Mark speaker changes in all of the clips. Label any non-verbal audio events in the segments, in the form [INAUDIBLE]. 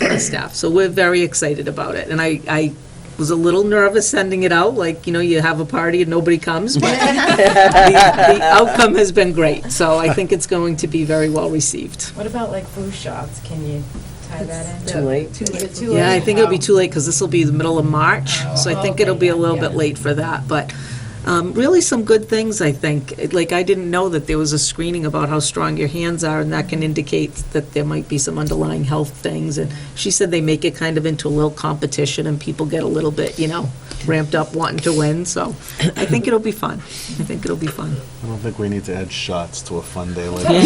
Speaker 1: my staff, so we're very excited about it. And I, I was a little nervous sending it out, like, you know, you have a party and nobody
Speaker 2: [LAUGHS]
Speaker 1: comes, but the [LAUGHS] the outcome has been great, so I think it's going to be very well received.
Speaker 3: What about like food shots? Can you tie that in?
Speaker 2: Too late.
Speaker 3: Is it too
Speaker 1: Yeah, I
Speaker 3: late?
Speaker 1: think it'll be
Speaker 3: Oh. [LAUGHS]
Speaker 1: too late, because this will be the middle of March, so I think it'll be a little bit late for that, but um, really some good things, I think. It- Like, I didn't know that there was a screening about how strong your hands are, and that can indicate that there might be some underlying health things, and she said they make it kind of into a little competition, and people get a little bit, you know, ramped up wanting to win, so I think it'll be fun. I think it'll be fun.
Speaker 4: I don't think we need to add shots to a fun day like this.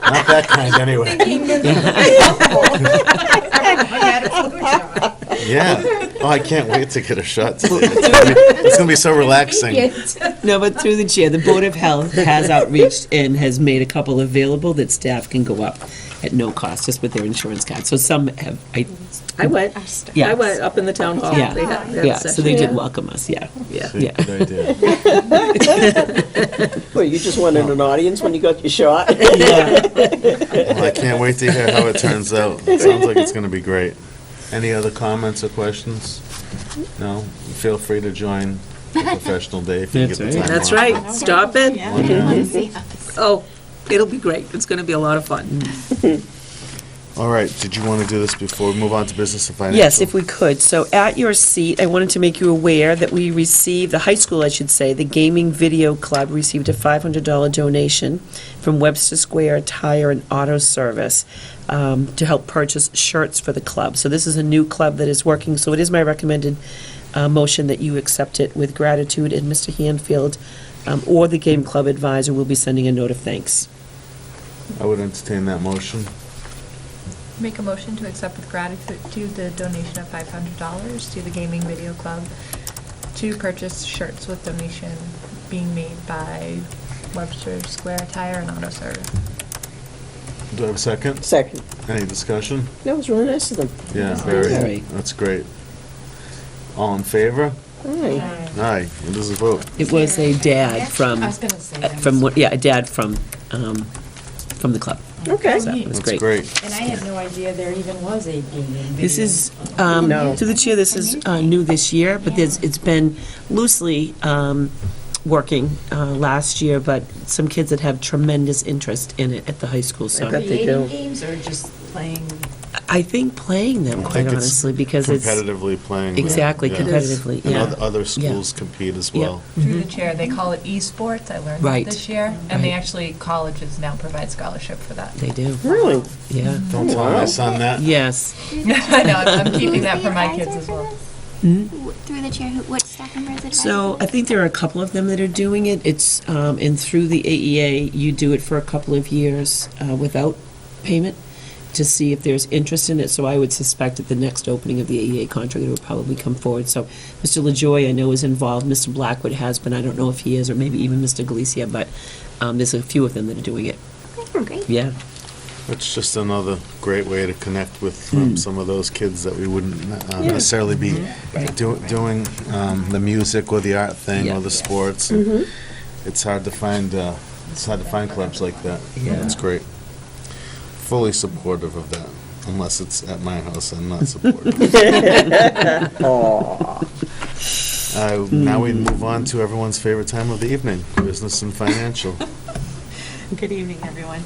Speaker 4: Not that kind, anyway. Yeah. Oh, I can't wait to get a shot today. It's gonna be- It's going to be so relaxing.
Speaker 2: [LAUGHS] No, but through the chair, the Board of Health has outreached and has made a couple available that staff can go up at no cost, just with their insurance card. So some have, I,
Speaker 1: I went, I
Speaker 2: Yes.
Speaker 1: went up in the town hall.
Speaker 2: Yeah.
Speaker 1: They had- they had a
Speaker 2: yeah, so they
Speaker 1: session.
Speaker 2: did welcome us, yeah.
Speaker 1: Yeah.
Speaker 4: See, Good idea.
Speaker 5: Well, you just wanted an audience when you got your shot.
Speaker 2: [LAUGHS]
Speaker 4: Well, Oh, I can't wait to hear how it turns out. It sounds like it's going to be great. Any other comments or questions? No? Feel free to join the professional day if you get the
Speaker 2: That's
Speaker 4: time
Speaker 2: right.
Speaker 4: off.
Speaker 1: That's right, stop it. Oh, it'll be great. It's going to be a lot of fun.
Speaker 4: All right, did you want to do this before we move on to business and financial?
Speaker 2: Yes, if we could. So at your seat, I wanted to make you aware that we received, the high school, I should say, the Gaming Video Club received a $500 donation from Webster Square Tire and Auto Service um, to help purchase shirts for the club. So this is a new club that is working, so it is my recommended uh, motion that you accept it with gratitude, and Mr. Hanfield um, or the Game Club advisor will be sending a note of thanks.
Speaker 4: I would entertain that motion.
Speaker 6: Make a motion to accept with gratitude the donation of five hundred dollars to the Gaming Video Club to purchase shirts with donation being made by Webster Square Tire and Auto Service.
Speaker 4: Do I have a second?
Speaker 5: Second.
Speaker 4: Any discussion?
Speaker 5: That was really nice of them.
Speaker 4: Yeah, very,
Speaker 2: Very.
Speaker 4: that's great. All in favor?
Speaker 5: Aye.
Speaker 4: Aye, it is a vote.
Speaker 2: It was a dad from,
Speaker 3: I was gonna say.
Speaker 2: uh,
Speaker 3: that.
Speaker 2: from, what- yeah, a dad from, um, from the club.
Speaker 5: Okay.
Speaker 2: So it was
Speaker 4: That's
Speaker 2: great.
Speaker 4: great.
Speaker 3: And I had no idea there even was a gaming video.
Speaker 2: This is, um,
Speaker 5: No.
Speaker 2: to the chair, this is uh, new this year, but there's, it's been loosely um, working uh, last year, but some kids that have tremendous interest in it at the high school, so
Speaker 5: bet. they
Speaker 3: Creating
Speaker 5: do.
Speaker 3: games or just playing?
Speaker 2: I think playing them,
Speaker 4: I
Speaker 2: quite
Speaker 4: think it's
Speaker 2: honestly, because it's.
Speaker 4: Competitively playing. them,
Speaker 2: Exactly,
Speaker 4: yeah.
Speaker 2: competitively,
Speaker 4: And
Speaker 2: yeah.
Speaker 4: oth- other
Speaker 2: Yeah.
Speaker 4: schools compete as
Speaker 2: Yeah.
Speaker 4: well.
Speaker 6: Through the chair, they call it esports, I learned
Speaker 2: Mm-hmm. Right.
Speaker 6: that this year. And they
Speaker 2: Right.
Speaker 6: actually, colleges now provide scholarship for that.
Speaker 2: They do,
Speaker 5: Really?
Speaker 2: yeah,
Speaker 4: Don't tell my son that.
Speaker 2: yes.
Speaker 6: [LAUGHS] I know, I'm I'm keeping that for my
Speaker 7: Who's the
Speaker 6: kids as
Speaker 7: advisor
Speaker 6: well.
Speaker 7: for this? Wh- Through the chair, who, what staff member is advising?
Speaker 2: Hmm? So I think there are a couple of them that are doing it. It's, um, and through the AEA, you do it for a couple of years uh, without payment to see if there's interest in it. So I would suspect at the next opening of the AEA contract, it will probably come forward. So Mr. LaJoy, I know, is involved. Mr. Blackwood has been. I don't know if he is, or maybe even Mr. Galicia, but um, there's a few of them that are doing it.
Speaker 7: Okay, great.
Speaker 2: Yeah.
Speaker 4: It's just another great way to connect with
Speaker 2: Hmm.
Speaker 4: um, some of those kids that we wouldn't uh, necessarily be
Speaker 2: Mm-hmm.
Speaker 4: do- doing um, the music or the art thing
Speaker 2: Yeah. Mm-hmm.
Speaker 4: or the sports. It's hard to find, uh, it's hard to find clubs like that.
Speaker 2: Yeah.
Speaker 4: That's great. Fully supportive of that, unless it's at my house, I'm not
Speaker 2: [LAUGHS]
Speaker 4: supportive. Uh, Now we
Speaker 2: Mm-hmm.
Speaker 4: move on to everyone's favorite time of the evening, business and
Speaker 2: [LAUGHS]
Speaker 4: financial.
Speaker 8: Good evening, everyone.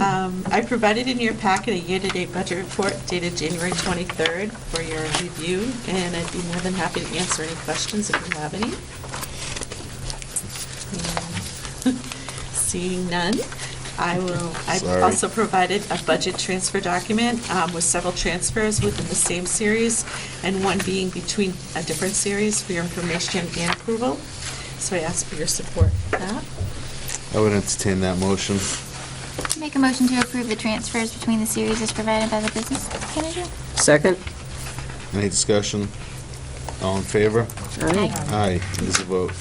Speaker 8: Um, I provided in your packet a year-to-date budget report dated January 23rd for your review, and I'd be more than happy to answer any questions if you have any. And [LAUGHS] Seeing none, I will, I've
Speaker 4: Sorry.
Speaker 8: also provided a budget transfer document um, with several transfers within the same series, and one being between a different series for your information and approval. So I ask for your support for that.
Speaker 4: I would entertain that motion.
Speaker 7: Make a motion to approve the transfers between the series as provided by the business manager?
Speaker 5: Second?
Speaker 4: Any discussion? All in favor?
Speaker 5: Aye.
Speaker 4: Aye, it is a vote.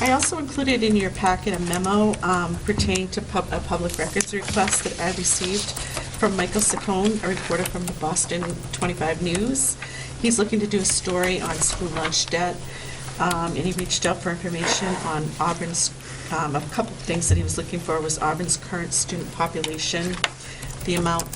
Speaker 8: I also included in your packet a memo um, pertaining to pub- a public records request that I received from Michael Saccone, a reporter from the Boston 25 News. He's looking to do a story on school lunch debt, um, and he reached out for information on Auburn's, um, a couple of things that he was looking for was Auburn's current student population, the amount